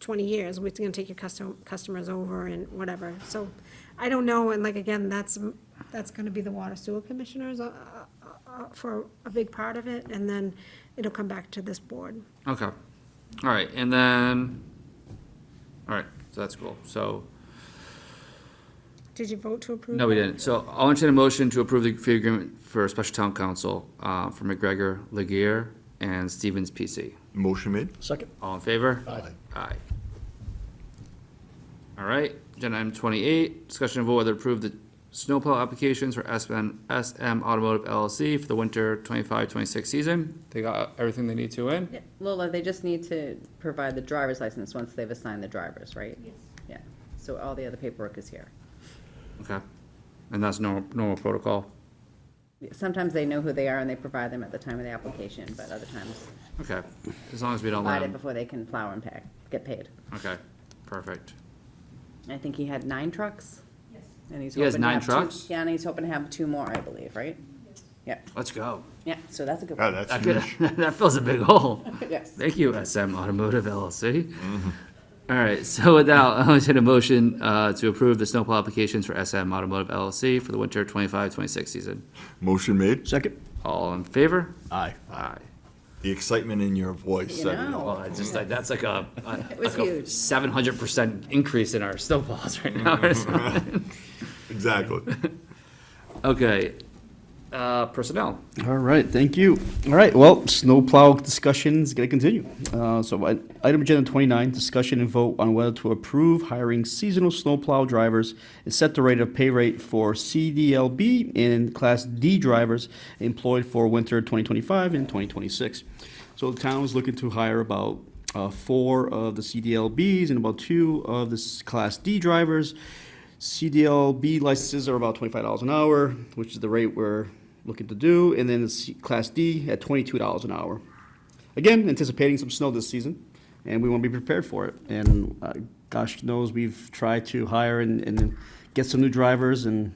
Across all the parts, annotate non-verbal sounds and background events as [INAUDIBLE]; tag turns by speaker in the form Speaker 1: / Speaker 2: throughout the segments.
Speaker 1: twenty years, we're gonna take your custom, customers over and whatever, so, I don't know, and like, again, that's, that's gonna be the water sewer commissioners, uh, uh, uh, for a big part of it, and then it'll come back to this board.
Speaker 2: Okay, all right, and then, all right, so that's cool, so,
Speaker 1: Did you vote to approve?
Speaker 2: no, we
Speaker 1: that?
Speaker 2: didn't, so I'll entertain a motion to approve the fee agreement for special town council, uh, for McGregor, Legear, and Stevens PC.
Speaker 3: Motion made.
Speaker 4: Second.
Speaker 2: All in favor?
Speaker 4: Aye.
Speaker 2: Aye. All right, agenda item twenty-eight, discussion of vote whether to approve the snowplow applications for SM, SM Automotive LLC for the winter 25-26 season. They got everything they need to in?
Speaker 5: Yeah, Lola, they just need to provide the driver's license once they've assigned the drivers, right? Yes. Yeah, so all the other paperwork is here.
Speaker 2: Okay, and that's normal, normal protocol?
Speaker 5: Sometimes they know who they are and they provide them at the time of the application, but other times
Speaker 2: Okay, as long as we don't let
Speaker 5: provide it
Speaker 2: 'em-
Speaker 5: before they can plow and pack, get paid.
Speaker 2: okay, perfect.
Speaker 5: I think he had nine trucks? Yes. And he's
Speaker 2: He has
Speaker 5: hoping to
Speaker 2: nine
Speaker 5: have two-
Speaker 2: trucks?
Speaker 5: Yeah, and he's hoping to have two more, I believe, right? Yeah,
Speaker 2: Let's go.
Speaker 5: yeah, so that's a good
Speaker 3: Yeah,
Speaker 5: one.
Speaker 3: Ah, that's
Speaker 2: That could, [LAUGHS]
Speaker 3: huge.
Speaker 2: that fills a big hole.
Speaker 5: Yes.
Speaker 2: Thank you, SM Automotive LLC. All right, so with that, I'll [LAUGHS] entertain a motion, uh, to approve the snowplow applications for SM Automotive LLC for the winter 25-26 season.
Speaker 3: Motion made.
Speaker 4: Second.
Speaker 2: All in favor?
Speaker 4: Aye.
Speaker 2: Aye.
Speaker 3: The excitement in your voice.
Speaker 5: You
Speaker 3: said it
Speaker 5: know.
Speaker 3: all.
Speaker 2: Well, it's just like, that's like a,
Speaker 5: Oh. [LAUGHS] It was huge.
Speaker 2: Seven hundred percent increase in our snowplows right now or something. [LAUGHS]
Speaker 3: Exactly.
Speaker 2: Okay, uh, personnel.
Speaker 4: All right, thank you. All right, well, snowplow discussion's gonna continue. Uh, so I- item agenda twenty-nine, discussion and vote on whether to approve hiring seasonal snowplow drivers and set the rate of pay rate for CDLB and Class D drivers employed for winter twenty twenty-five and twenty twenty-six. So the town is looking to hire about uh, four of the CDLBs and about two of the s- Class D drivers. CDLB licenses are about twenty-five dollars an hour, which is the rate we're looking to do, and then the C- Class D at twenty-two dollars an hour. Again, anticipating some snow this season, and we want to be prepared for it. And uh, gosh knows, we've tried to hire and, and get some new drivers, and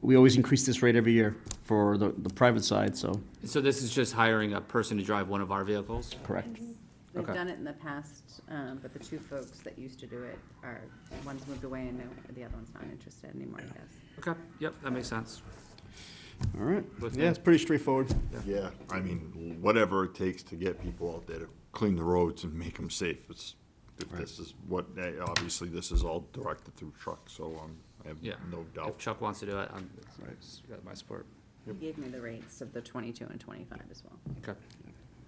Speaker 4: we always increase this rate every year for the, the private side, so,
Speaker 2: So this is just hiring a person to drive one of our vehicles?
Speaker 4: correct.
Speaker 5: We've
Speaker 2: Okay.
Speaker 5: done it in the past, um, but the two folks that used to do it are, one's moved away and no- the other one's not interested anymore, I guess.
Speaker 2: Okay, yep, that makes sense.
Speaker 4: All right,
Speaker 2: Looks
Speaker 4: yeah,
Speaker 2: good.
Speaker 4: it's pretty straightforward.
Speaker 3: Yeah, I mean, whatever it takes to get people out there to clean the roads and make them safe. It's, if this is what, eh, obviously, this is all directed through trucks, so um, I have
Speaker 2: Yeah.
Speaker 3: no
Speaker 2: If
Speaker 3: doubt.
Speaker 2: Chuck wants to do it, I'm, it's got my support.
Speaker 5: He gave me the rates of the twenty-two and twenty-five as well.
Speaker 2: Okay.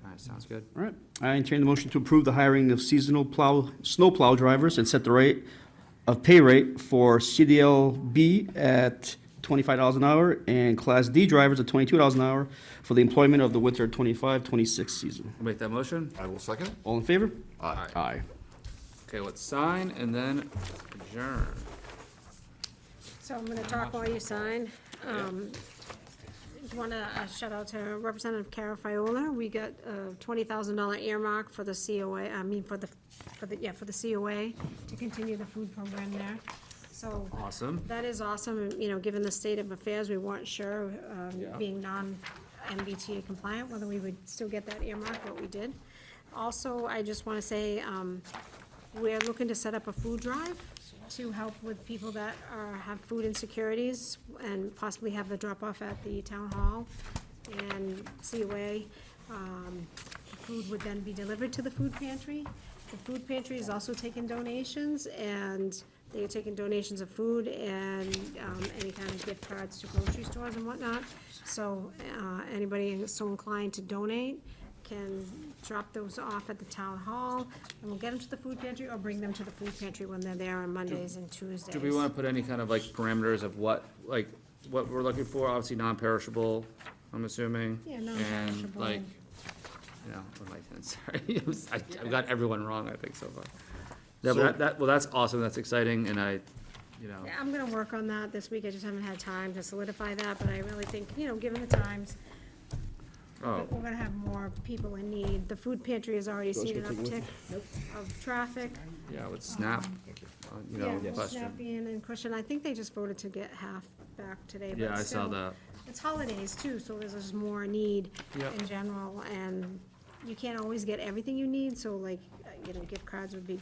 Speaker 2: All right, sounds good.
Speaker 4: All right, I entertain the motion to approve the hiring of seasonal plow, snow plow drivers and set the rate of pay rate for CDLB at twenty-five dollars an hour and Class D drivers at twenty-two dollars an hour for the employment of the winter 25-26 season.
Speaker 2: I'll Make that motion.
Speaker 3: I will second it.
Speaker 4: All in favor?
Speaker 3: Aye.
Speaker 4: Aye.
Speaker 2: Okay, let's sign and then adjourn.
Speaker 1: So I'm gonna talk while you sign. Um, just wanna uh, shout out to Representative Cara Fiola. We got a twenty thousand dollar earmark for the COA, I mean, for the, for the, yeah, for the COA to continue the food program there. So
Speaker 2: Awesome.
Speaker 1: that is awesome, and, you know, given the state of affairs, we weren't sure, um,
Speaker 2: Yeah.
Speaker 1: being non-MBTA compliant, whether we would still get that earmark, but we did. Also, I just wanna say, um, we're looking to set up a food drive to help with people that are, have food insecurities and possibly have the drop-off at the town hall and COA. Um, the Food would then be delivered to the food pantry. The food pantry is also taking donations and they are taking donations of food and, um, any kind of gift cards to grocery stores and whatnot. So, uh, anybody so inclined to donate, can drop those off at the town hall, and we'll get them to the food pantry, or bring them to the food pantry when they're there on Mondays and Tuesdays.
Speaker 2: Do we want to put any kind of like parameters of what, like, what we're looking for? Obviously non-perishable, I'm assuming.
Speaker 1: Yeah,
Speaker 2: And
Speaker 1: non-perishable.
Speaker 2: like, you know, what am I saying? [LAUGHS] sorry, I'm s- I- I've got everyone wrong, I think so far. No, but
Speaker 3: So-
Speaker 2: that, that, well, that's awesome, that's exciting, and I, you know,
Speaker 1: Yeah, I'm gonna work on that this week, I just haven't had time to solidify that, but I really think, you know, given the times,
Speaker 2: oh,
Speaker 1: we're gonna have more people in need. The food pantry has already seen an uptick of traffic.
Speaker 2: yeah, with Snap, uh, you
Speaker 1: Yeah,
Speaker 2: know,
Speaker 1: with
Speaker 2: question.
Speaker 1: Snappian and Cushion, I think they just voted to get half back today, but
Speaker 2: Yeah, I saw
Speaker 1: still,
Speaker 2: that.
Speaker 1: It's holidays too, so there's just more need
Speaker 2: Yep.
Speaker 1: in general, and you can't always get everything you need, so like, uh, you know, gift cards would be